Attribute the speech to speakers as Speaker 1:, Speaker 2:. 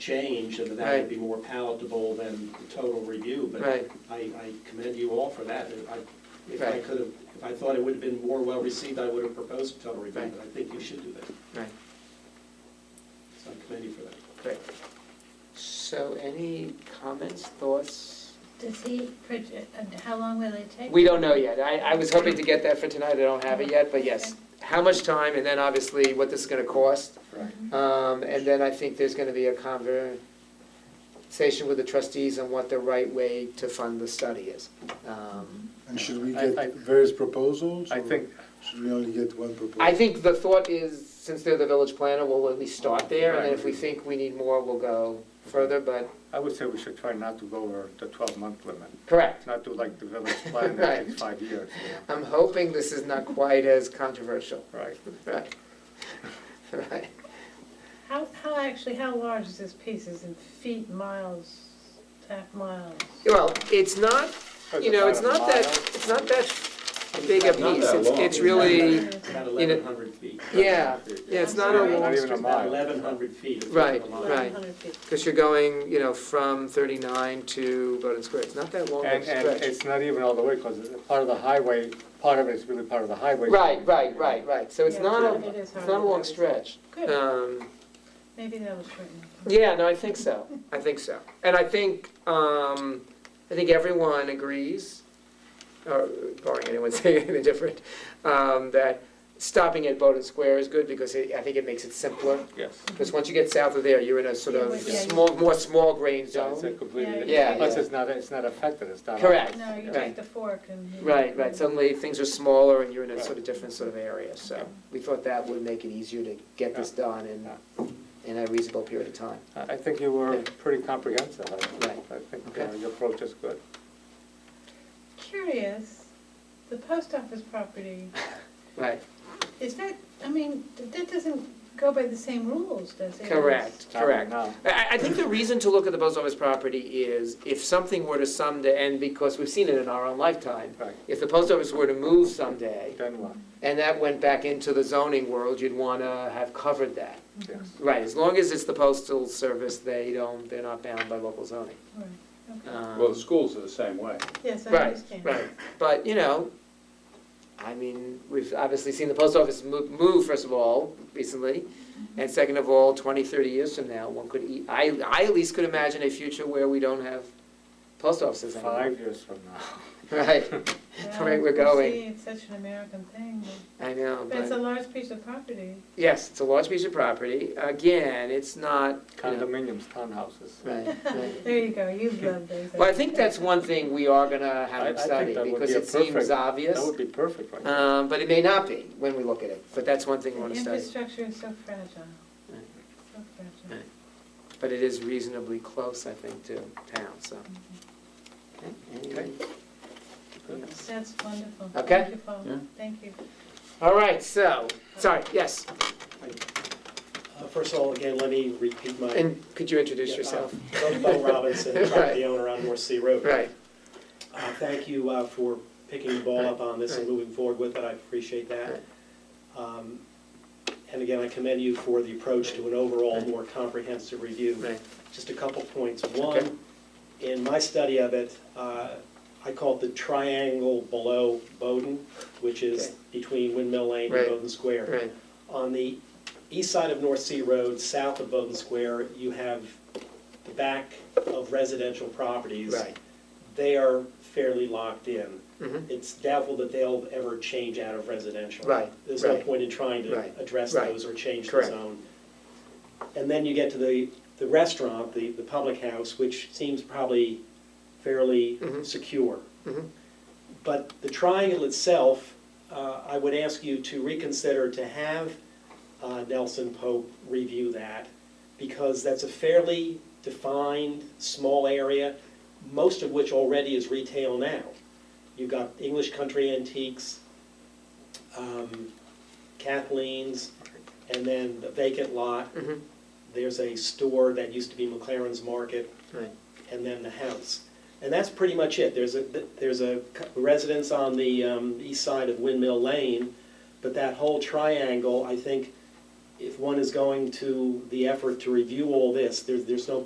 Speaker 1: change, and that
Speaker 2: Right.
Speaker 1: would be more palatable than the total review, but
Speaker 2: Right.
Speaker 1: I, I commend you all for that. If I, if I
Speaker 2: Right.
Speaker 1: could have, if I thought it would have been more well-received, I would have proposed a total review,
Speaker 2: Right.
Speaker 1: but I think you should do that,
Speaker 2: Right,
Speaker 1: so I commend you for that.
Speaker 2: great. So any comments, thoughts?
Speaker 3: Does he, proj- and how long will it take?
Speaker 2: We don't know yet. I, I was hoping to get that for tonight, I don't have it yet, but yes. How much time, and then obviously what this is gonna cost.
Speaker 1: Correct.
Speaker 2: Um, and then I think there's gonna be a conversation with the trustees on what the right way to fund the study is. Um,
Speaker 4: And should we
Speaker 5: I- I-
Speaker 4: get various proposals?
Speaker 5: I
Speaker 4: or
Speaker 5: think-
Speaker 4: Should we only get one proposal?
Speaker 2: I think the thought is, since they're the village planner, we'll at least start there, and then if we think we need more, we'll go further, but,
Speaker 5: I would say we should try not to go over the twelve-month limit,
Speaker 2: correct.
Speaker 5: not do like the village plan that takes five years,
Speaker 2: I'm hoping this is not quite as controversial.
Speaker 5: right?
Speaker 2: Right. Right.
Speaker 3: How, how actually, how large is this piece? Is it feet, miles, half miles?
Speaker 2: Well, it's not, you know, it's not that, it's not that big a
Speaker 1: Not
Speaker 2: piece,
Speaker 1: that
Speaker 2: it's,
Speaker 1: long.
Speaker 2: it's really,
Speaker 1: It's About
Speaker 2: you know-
Speaker 1: eleven hundred feet.
Speaker 2: yeah, yeah, it's not a long
Speaker 5: even a
Speaker 2: street.
Speaker 1: About
Speaker 5: mile.
Speaker 1: eleven hundred feet. it's
Speaker 2: Right,
Speaker 1: a mile.
Speaker 2: right.
Speaker 3: 1,100 feet.
Speaker 2: Because you're going, you know, from 39 to Bowden Square, it's not that long of
Speaker 5: And,
Speaker 2: a
Speaker 5: and
Speaker 2: stretch.
Speaker 5: it's not even all the way, because part of the highway, part of it is really part of the highway.
Speaker 2: Right, right, right, right, so it's
Speaker 3: Yeah,
Speaker 2: not
Speaker 3: it
Speaker 2: a,
Speaker 3: is
Speaker 2: it's not a
Speaker 3: hardly
Speaker 2: long
Speaker 3: that.
Speaker 2: stretch.
Speaker 3: Good,
Speaker 2: Um,
Speaker 3: maybe that was shortened.
Speaker 2: Yeah, no, I think so, I think so. And I think, um, I think everyone agrees, or barring anyone saying anything different, um, that stopping at Bowden Square is good because it- I think it makes it simpler.
Speaker 5: Yes.
Speaker 2: Because once you get south of there, you're in a sort
Speaker 3: Yeah,
Speaker 2: of
Speaker 3: yeah, yeah.
Speaker 2: small, more small grain
Speaker 5: So It's a
Speaker 2: zone.
Speaker 5: completely,
Speaker 2: Yeah,
Speaker 5: plus
Speaker 2: yeah.
Speaker 5: it's not, it's not affected, it's not.
Speaker 2: Correct.
Speaker 3: No, you
Speaker 2: Right.
Speaker 3: take the fork and. you-
Speaker 2: Right, right, suddenly things are smaller and you're in a sort of
Speaker 5: Right.
Speaker 2: different sort of area, so we thought that would make it easier to get this done in, in a reasonable period of time.
Speaker 5: I I think you were pretty comprehensive, I,
Speaker 2: Right.
Speaker 5: I think
Speaker 2: Okay.
Speaker 5: uh, your approach is good.
Speaker 3: Curious, the post office property,
Speaker 2: Right,
Speaker 3: is that, I mean, th- that doesn't go by the same rules, does it?
Speaker 2: correct,
Speaker 5: Not right
Speaker 2: correct.
Speaker 5: now.
Speaker 2: I- I, I think the reason to look at the post office property is if something were to someday, and because we've seen it in our own lifetime,
Speaker 5: Right,
Speaker 2: if the post office were to move someday,
Speaker 5: then what?
Speaker 2: and that went back into the zoning world, you'd wanna have covered that.
Speaker 5: Yes.
Speaker 2: Right, as long as it's the postal service, they don't, they're not bound by local zoning.
Speaker 3: Right, okay.
Speaker 2: Um,
Speaker 6: Well, the schools are the same way.
Speaker 3: Yes, I
Speaker 2: right,
Speaker 3: understand.
Speaker 2: Right, but, you know, I mean, we've obviously seen the post office move, move, first of all, recently,
Speaker 3: Mm-hmm.
Speaker 2: and second of all, 20, 30 years from now, one could, e- I, I at least could imagine a future where we don't have post offices anymore.
Speaker 5: Five years from now.
Speaker 2: Right,
Speaker 3: Yeah,
Speaker 2: Right, we're
Speaker 3: you
Speaker 2: going.
Speaker 3: see, It's such an American thing, but-
Speaker 2: I know,
Speaker 3: but it's a
Speaker 2: but,
Speaker 3: large piece of property.
Speaker 2: yes, it's a large piece of property, again, it's not, you know,
Speaker 5: Condominiums, townhouses.
Speaker 2: right, right.
Speaker 3: There you go, you've loved those.
Speaker 2: Well, I think that's one thing we are gonna have
Speaker 5: I- I
Speaker 2: it
Speaker 5: think
Speaker 2: study,
Speaker 5: that would
Speaker 2: because
Speaker 5: be a
Speaker 2: it seems
Speaker 5: perfect-
Speaker 2: obvious.
Speaker 5: That would be perfect right now.
Speaker 2: Um, but it may not be when we look at it, but that's one thing we
Speaker 3: The
Speaker 2: wanna study.
Speaker 3: Infrastructure is so fragile,
Speaker 2: Right.
Speaker 3: so fragile.
Speaker 2: Right. But it is reasonably close, I think, to town, so. Okay, anything- anything else?
Speaker 3: That's wonderful.
Speaker 2: Okay.
Speaker 3: Thank you, Paul.
Speaker 6: Yeah.
Speaker 3: Thank you.
Speaker 2: All right, so, sorry, yes,
Speaker 7: Uh, First of all, again, let me repeat my.
Speaker 2: and could you introduce
Speaker 7: Yeah, uh,
Speaker 2: yourself?
Speaker 7: I'm Bo Robinson,
Speaker 2: Right.
Speaker 7: property owner on North Sea Road.
Speaker 2: Right,
Speaker 7: Uh, Thank you uh, for picking the ball up on this and
Speaker 2: Right.
Speaker 7: moving forward with it, I appreciate that. Um, And again, I commend you for the approach to an overall
Speaker 2: Right.
Speaker 7: more comprehensive review.
Speaker 2: right,
Speaker 7: Just a couple points.
Speaker 2: Okay.
Speaker 7: One, in my study of it, uh, I call it the triangle below Bowden, which is
Speaker 2: Okay.
Speaker 7: between Windmill Lane and
Speaker 2: Right.
Speaker 7: Bowden Square.
Speaker 2: right,
Speaker 7: On the east side of North Sea Road, south of Bowden Square, you have the back of residential properties.
Speaker 2: right.
Speaker 7: They are fairly locked in.
Speaker 2: Mhm.
Speaker 7: It's doubtful that they'll ever change out of residential.
Speaker 2: Right,
Speaker 7: There's no
Speaker 2: right.
Speaker 7: point in trying
Speaker 2: Right,
Speaker 7: to address
Speaker 2: right.
Speaker 7: those or change the
Speaker 2: Correct.
Speaker 7: zone. And then you get to the, the restaurant, the, the public house, which seems probably fairly
Speaker 2: Mhm.
Speaker 7: secure.
Speaker 2: Mhm.
Speaker 7: But the triangle itself, uh, I would ask you to reconsider to have uh, Nelson Pope review that, because that's a fairly defined, small area, most of which already is retail now. You've got English Country Antiques, um, Kathleen's, and then the vacant lot.
Speaker 2: Mhm.
Speaker 7: There's a store that used to be McLaren's Market,
Speaker 2: Right.
Speaker 7: and then the house. And that's pretty much it. There's a, there's a residence on the um, east side of Windmill Lane, but that whole triangle, I think, if one is going to the effort to review all this, there, there's no